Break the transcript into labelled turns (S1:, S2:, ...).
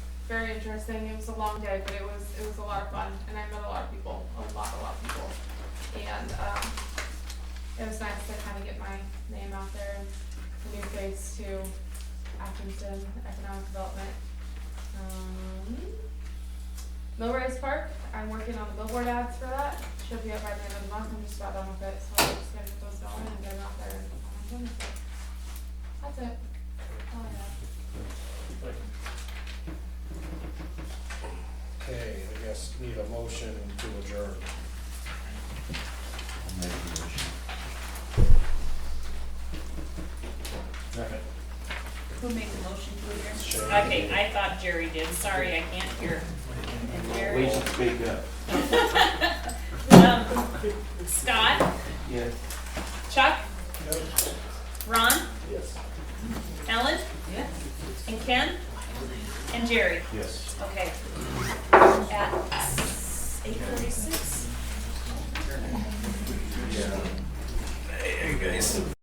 S1: very interesting. It was a long day, but it was, it was a lot of fun and I met a lot of people, a lot, a lot of people. And, um, it was nice to kind of get my name out there and a new face to Atkinson Economic Development. Um, Millrace Park, I'm working on the billboard ads for that. Should be up by the end of the month. I'm just about done with it, so I'm just gonna get those going and get them out there. and That's it. All I have.
S2: Okay, I guess need a motion to adjourn.
S3: Who made the motion to
S2: Sure.
S3: adjourn? Okay, I thought Jerry did, sorry, I can't hear. And Jerry-
S4: We should speak up.
S3: Um, Scott,
S4: Yes.
S3: Chuck? Ron,
S4: Yes.
S3: Ellen? And Ken? And Jerry,
S4: Yes.
S3: okay. At eight thirty-six?